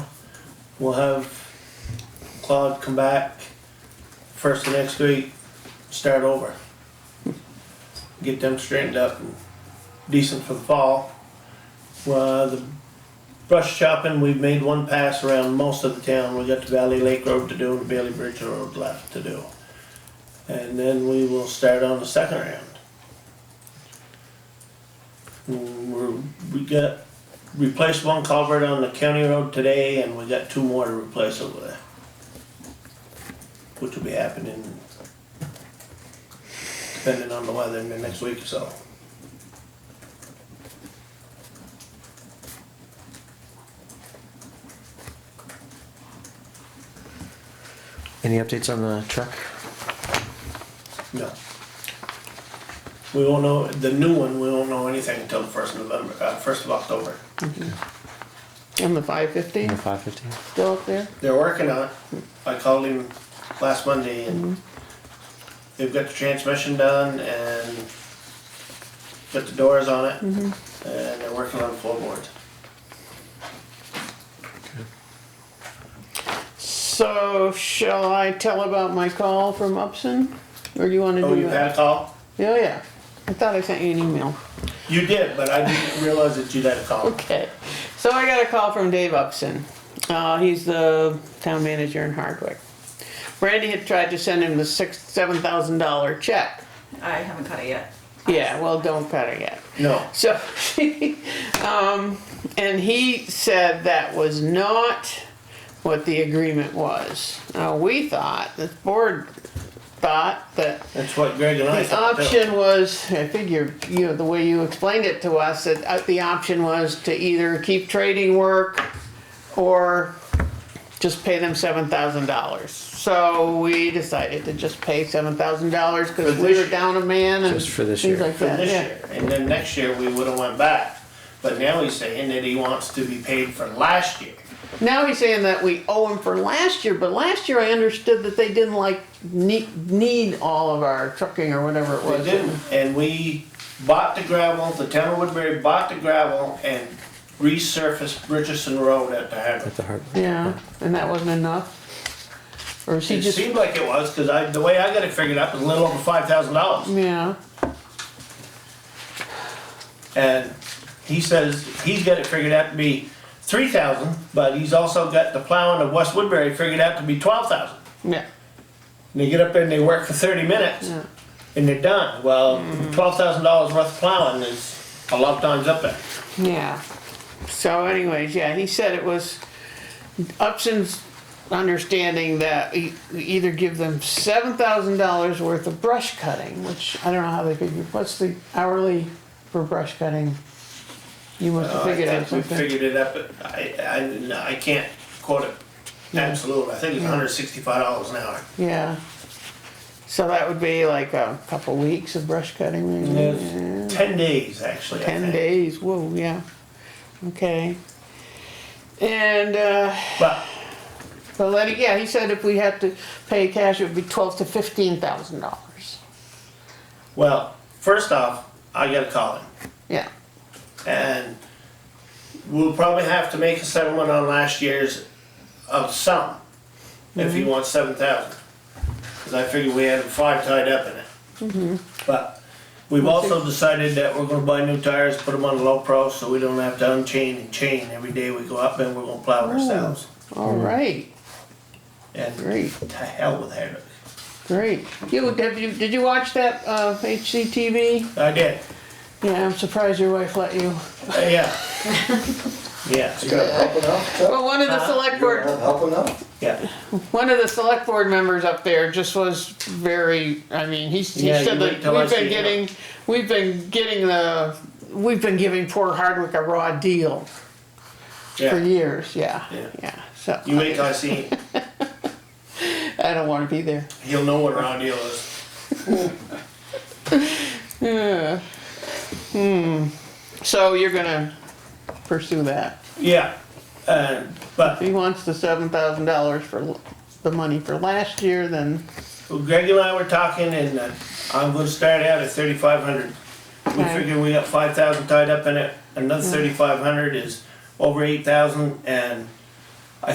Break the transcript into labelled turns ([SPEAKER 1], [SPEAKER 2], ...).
[SPEAKER 1] We'll have Claude come back first of next week, start over. Get them straightened up and decent for the fall. Well, the brush chopping, we've made one pass around most of the town. We got the Valley Lake Road to do and Bailey Bridge Road left to do. And then we will start on the second round. We're, we got, replaced one culvert on the county road today and we got two more to replace over there. Which will be happening depending on the weather in the next week or so.
[SPEAKER 2] Any updates on the truck?
[SPEAKER 1] No. We won't know, the new one, we won't know anything until the first of November, uh, first of October.
[SPEAKER 3] And the five fifty,
[SPEAKER 2] In the 550?
[SPEAKER 3] still up there?
[SPEAKER 1] They're working on it. I called him last Monday and they've got the transmission done and got the doors on it. And they're working on floorboards.
[SPEAKER 3] So shall I tell about my call from Upson? Or do you wanna
[SPEAKER 1] Oh,
[SPEAKER 3] do
[SPEAKER 1] you had
[SPEAKER 3] that?
[SPEAKER 1] a call?
[SPEAKER 3] Oh, yeah. I thought I sent you an email.
[SPEAKER 1] You did, but I didn't realize that you'd had a call.
[SPEAKER 3] Okay, so I got a call from Dave Upson. Uh, he's the town manager in Hardwick. Randy had tried to send him the six, seven thousand dollar check.
[SPEAKER 4] I haven't cut it yet.
[SPEAKER 3] Yeah, well, don't cut it yet.
[SPEAKER 1] No,
[SPEAKER 3] So, um, and he said that was not what the agreement was. Now, we thought, the board thought that
[SPEAKER 1] that's what Greg and I
[SPEAKER 3] the
[SPEAKER 1] thought too.
[SPEAKER 3] option was, I figure, you know, the way you explained it to us, that uh, the option was to either keep trading work or just pay them seven thousand dollars. So we decided to just pay seven thousand dollars
[SPEAKER 1] For
[SPEAKER 3] because
[SPEAKER 1] this
[SPEAKER 3] we were
[SPEAKER 1] year.
[SPEAKER 3] down a man and
[SPEAKER 2] Just for this
[SPEAKER 3] things
[SPEAKER 2] year.
[SPEAKER 3] like
[SPEAKER 1] for
[SPEAKER 3] that,
[SPEAKER 1] this
[SPEAKER 3] yeah.
[SPEAKER 1] year, and then next year we would've went back. But now he's saying that he wants to be paid for last year.
[SPEAKER 3] Now he's saying that we owe him for last year, but last year I understood that they didn't like need, need all of our trucking or whatever it
[SPEAKER 1] We
[SPEAKER 3] was.
[SPEAKER 1] didn't, and we bought the gravel, the town of Woodbury bought the gravel and resurfaced Richardson Road at the
[SPEAKER 2] At
[SPEAKER 1] Hardwick.
[SPEAKER 2] the heart.
[SPEAKER 3] Yeah, and that wasn't enough. Or is he
[SPEAKER 1] It
[SPEAKER 3] just,
[SPEAKER 1] seemed like it was, cause I, the way I got it figured out was a little over five thousand dollars.
[SPEAKER 3] yeah,
[SPEAKER 1] And he says he's got it figured out to be three thousand, but he's also got the plowing of West Woodbury figured out to be twelve thousand.
[SPEAKER 3] yeah,
[SPEAKER 1] And they get up there and they work for thirty minutes
[SPEAKER 3] yeah.
[SPEAKER 1] and they're done. Well, twelve thousand dollars worth of plowing is a lot of times up there.
[SPEAKER 3] Yeah. So anyways, yeah, he said it was Upson's understanding that we we either give them seven thousand dollars worth of brush cutting, which I don't know how they figure, what's the hourly for brush cutting? You must have
[SPEAKER 1] Uh, I
[SPEAKER 3] figured out
[SPEAKER 1] think we
[SPEAKER 3] something.
[SPEAKER 1] figured it up, but I, I, no, I can't quote it absolute, I think it's hundred sixty-five dollars an hour.
[SPEAKER 3] Yeah. So that would be like a couple weeks of brush cutting, maybe?
[SPEAKER 1] It's Ten days, actually, I
[SPEAKER 3] ten
[SPEAKER 1] think.
[SPEAKER 3] days, whoa, yeah. Okay. And, uh,
[SPEAKER 1] But
[SPEAKER 3] So let it, yeah, he said if we had to pay cash, it would be twelve to fifteen thousand dollars.
[SPEAKER 1] Well, first off, I gotta call him,
[SPEAKER 3] Yeah,
[SPEAKER 1] and we'll probably have to make a settlement on last year's of some, if he wants seven thousand. Cause I figured we had five tied up in it. But we've also decided that we're gonna buy new tires, put them on low pro, so we don't have to unchain and chain every day we go up, and we're gonna plow ourselves.
[SPEAKER 3] all right,
[SPEAKER 1] And
[SPEAKER 3] great,
[SPEAKER 1] to hell with Hardwick.
[SPEAKER 3] great. You, have you, did you watch that, uh, HCTV?
[SPEAKER 1] I did,
[SPEAKER 3] Yeah, I'm surprised your wife let you.
[SPEAKER 1] Uh, yeah. Yeah,
[SPEAKER 5] You got help enough, Chuck?
[SPEAKER 3] Well, one of the select board,
[SPEAKER 5] Not help enough?
[SPEAKER 1] yeah.
[SPEAKER 3] one of the select board members up there just was very, I mean, he's, he
[SPEAKER 1] Yeah, you
[SPEAKER 3] said
[SPEAKER 1] wait
[SPEAKER 3] that
[SPEAKER 1] till I
[SPEAKER 3] we've
[SPEAKER 1] see
[SPEAKER 3] been
[SPEAKER 1] it.
[SPEAKER 3] getting, we've been getting the, we've been giving poor Hardwick a raw deal for
[SPEAKER 1] Yeah.
[SPEAKER 3] years, yeah,
[SPEAKER 1] Yeah.
[SPEAKER 3] yeah, so.
[SPEAKER 1] You wait till I see him,
[SPEAKER 3] I don't wanna be there.
[SPEAKER 1] he'll know what round deal is.
[SPEAKER 3] Yeah. Hmm. So you're gonna pursue that.
[SPEAKER 1] Yeah, uh, but
[SPEAKER 3] He wants the seven thousand dollars for l- the money for last year, then,
[SPEAKER 1] Greg and I were talking and uh, I'm gonna start out at thirty-five hundred. We
[SPEAKER 3] Okay.
[SPEAKER 1] figure we got five thousand tied up in it, another thirty-five hundred is over eight thousand and